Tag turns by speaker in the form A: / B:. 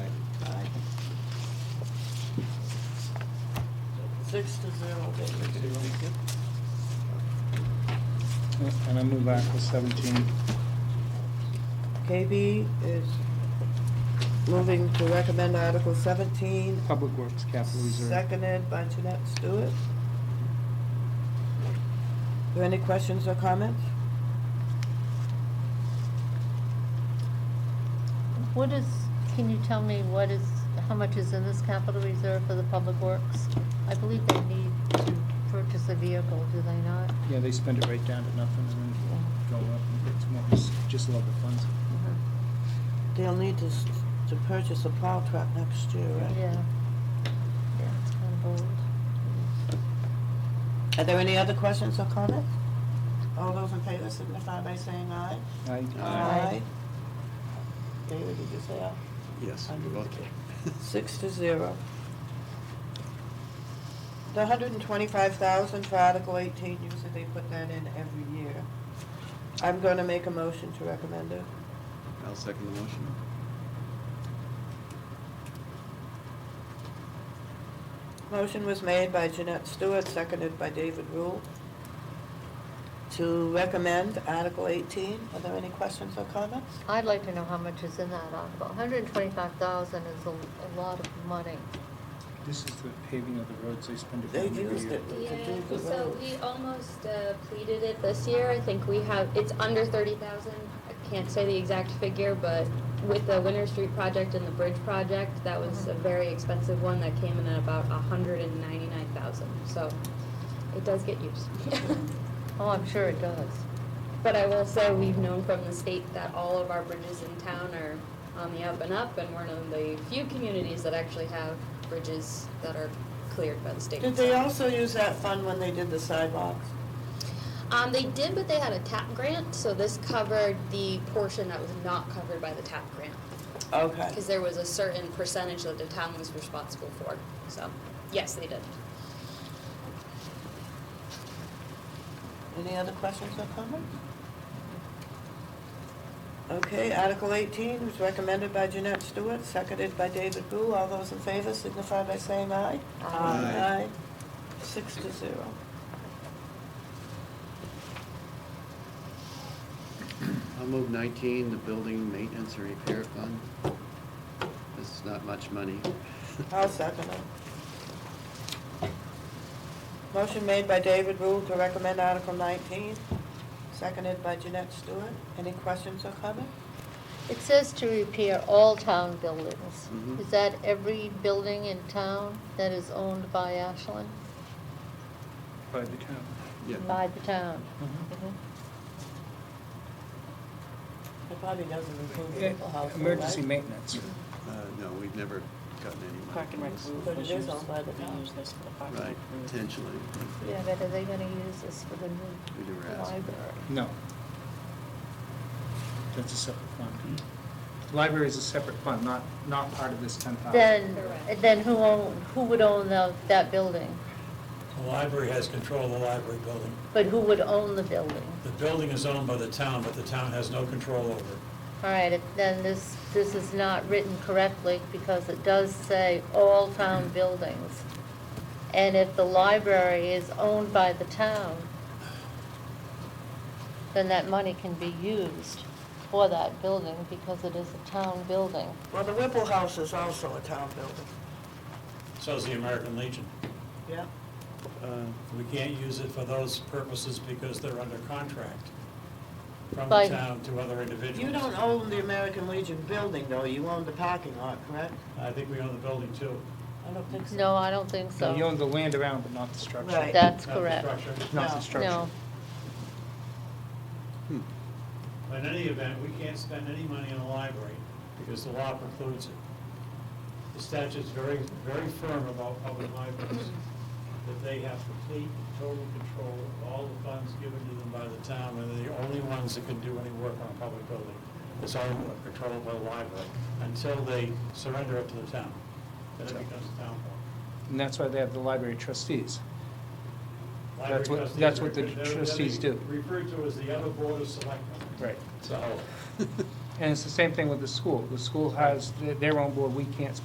A: Six to zero.
B: And I move Article 17.
C: KB is moving to recommend Article 17,
B: Public Works Capital Reserve.
C: seconded by Jeanette Stewart. Are there any questions or comments?
D: What is, can you tell me what is, how much is in this capital reserve for the public works? I believe they need to purchase a vehicle, do they not?
B: Yeah, they spend it right down to nothing and then go up and it's more, it's just love the funds.
C: They'll need to, s- to purchase a plow truck next year,
D: Yeah.
C: right?
D: Yeah, it's kind of bold.
C: Are there any other questions or comments? All those in favor signify by saying aye.
B: I,
D: Aye.
C: David, did you say aye?
E: Yes,
C: I
E: you're
C: do.
E: okay.
C: Six to zero. The hundred and twenty-five thousand for Article eighteen, usually they put that in every year. I'm gonna make a motion to recommend it.
E: I'll second the motion.
C: Motion was made by Jeanette Stewart, seconded by David Rule, to recommend Article eighteen. Are there any questions or comments?
D: I'd like to know how much is in that article. hundred and twenty-five thousand is a, a lot of money.
B: this is the paving of the roads, they spend it
C: They
B: down every
C: used
B: year.
C: it. to
F: Yeah,
C: do the
F: so
C: roads.
F: we almost uh, pleaded it this year. I think we have, it's under thirty thousand. I can't say the exact figure, but with the Winter Street project and the bridge project, that was a very expensive one that came in at about a hundred and ninety-nine thousand. So it does get used.
D: Oh, I'm sure it does.
F: But I will say, we've known from the state that all of our bridges in town are on the up and up, and we're one of the few communities that actually have bridges that are cleared by the state.
C: Did they also use that fund when they did the sidewalks?
F: Um, they did, but they had a TAP grant, so this covered the portion that was not covered by the TAP grant.
C: Okay.
F: Because there was a certain percentage that the town was responsible for, so, yes, they did.
C: Any other questions or comments? Okay, Article 18 was recommended by Jeanette Stewart, seconded by David Boo. All those in favor signify by saying aye.
D: Aye.
E: Aye.
C: Six to zero.
E: I'll move nineteen, the building maintenance and repair fund. This is not much money.
C: I'll second it. Motion made by David Boo to recommend Article 19, seconded by Jeanette Stewart. Any questions or comments?
D: It says to repair all town buildings.
E: Mhm.
D: Is that every building in town that is owned by Ashland?
B: By the town.
E: Yeah.
D: By the town?
B: Mm-hmm.
C: Mm-hmm.
D: Mm-hmm.
C: It probably doesn't include
B: Yeah,
C: vehicle household, right?
B: Emergency maintenance.
E: Uh, no, we've never gotten any money
A: Park
E: from
A: and Rec
E: this.
A: roof
C: But it
A: was
C: is
A: used-
C: owned by the
A: they
C: town.
A: use this for the Park and
E: Right,
A: Rec roof.
E: potentially.
D: Yeah, but are they gonna use this for the new
E: We never
D: the
E: asked.
D: library?
B: No. That's a separate fund. Library is a separate fund, not, not part of this 10,000.
D: Then,
F: Correct.
D: then who own, who would own the, that building?
G: The library has control of the library building.
D: But who would own the building?
G: The building is owned by the town, but the town has no control over it.
D: All right, if- then this, this is not written correctly because it does say all town buildings. And if the library is owned by the town, then that money can be used for that building because it is a town building.
C: Well, the Whipple House is also a town building.
G: So is the American Legion.
C: Yeah.
E: Uh,
G: We can't use it for those purposes because they're under contract from the
D: By-
G: town to other individuals.
C: You don't own the American Legion building, though, you own the parking lot, correct?
G: I think we own the building too.
C: I don't think
D: No, I don't think
B: No, You
D: so.
B: own the land around, but not the structure.
C: Right.
D: That's
G: Not the
D: correct.
G: structure.
B: Not the
C: No.
B: structure.
D: No,
G: But In any event, we can't spend any money in the library because the law precludes it. The statute's very, very firm about public libraries, that they have complete and total control of all the funds given to them by the town, and they're the only ones that can do any work on a public building. It's all controlled by the library, until they surrender it to the town, then it becomes a town hall.
B: And that's why they have the library trustees.
G: Library
B: That's what-
G: trustees
B: that's
G: are-
B: what the
G: they're- they're
B: trustees do.
G: Referred to as the other board of selectmen.
B: Right.
G: So,
B: And it's the same thing with the school. The school has th- their own board, we can't